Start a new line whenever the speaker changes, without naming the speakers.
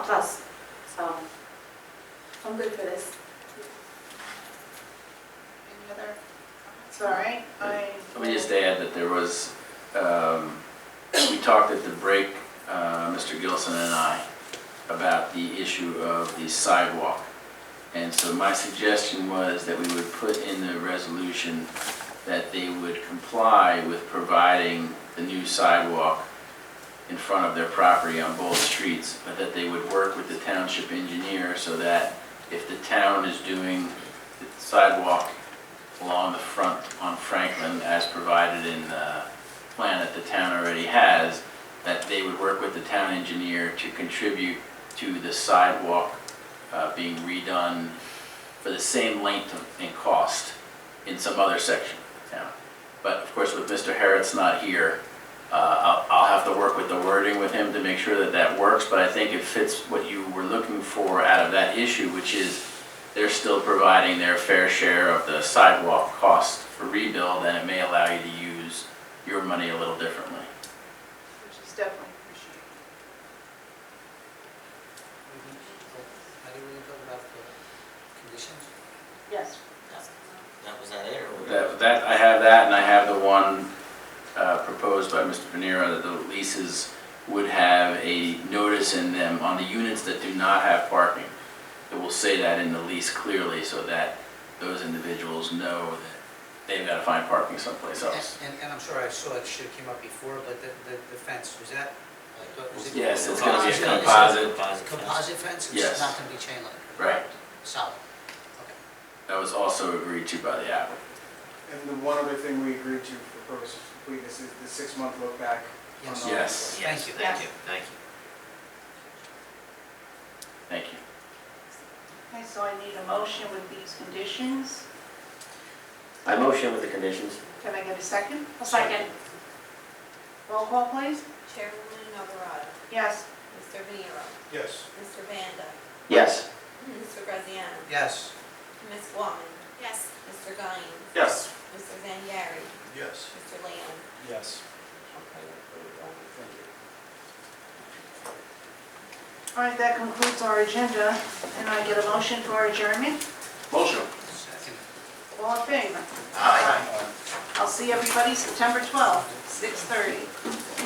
us, so I'm good for this.
Any other comments? All right, I.
Let me just add that there was, um, we talked at the break, uh, Mr. Gilson and I, about the issue of the sidewalk. And so my suggestion was that we would put in the resolution that they would comply with providing the new sidewalk in front of their property on both streets, but that they would work with the township engineer so that if the town is doing the sidewalk along the front on Franklin as provided in the plan that the town already has, that they would work with the town engineer to contribute to the sidewalk uh, being redone for the same length of- and cost in some other section of town. But of course, with Mr. Harret's not here, uh, I'll I'll have to work with the wording with him to make sure that that works, but I think it fits what you were looking for out of that issue, which is they're still providing their fair share of the sidewalk cost for rebuild, and it may allow you to use your money a little differently.
Which is definitely appreciated.
How do you want to talk about the conditions?
Yes.
That was that it, or?
That, that, I have that, and I have the one uh, proposed by Mr. Panera, that the leases would have a notice in them on the units that do not have parking. It will say that in the lease clearly, so that those individuals know that they've got to find parking someplace else.
And, and I'm sure I saw it, should have came up before, but the, the the fence, was that, I thought, was it?
Yes, it's gonna be a
Is it- is it
composite.
Composite.
Composite fence,
Yes.
it's not gonna be chain link?
Right.
Solid, okay.
That was also agreed to by the applicant.
And the one other thing we agreed to for purpose of completeness is the six-month look back. on
Yes.
the-
Yes.
Thank you.
Thank you, thank you.
Thank you.
Okay, so I need a motion with these conditions.
I motion with the conditions.
Can I get a second?
A second.
Roll call, please.
Chairwoman Alvarado,
Yes.
Mr. Venero,
Yes.
Mr. Vanda,
Yes.
Mr. Graziano,
Yes,
Ms. Walman. Yes. Mr. Guines,
Yes.
Mr. Zandari,
Yes.
Mr. Lamb.
Yes.
All right, that concludes our agenda, and I get a motion for adjournment.
Motion.
second.
All in favor? I'll see everybody September 12th, 6:30.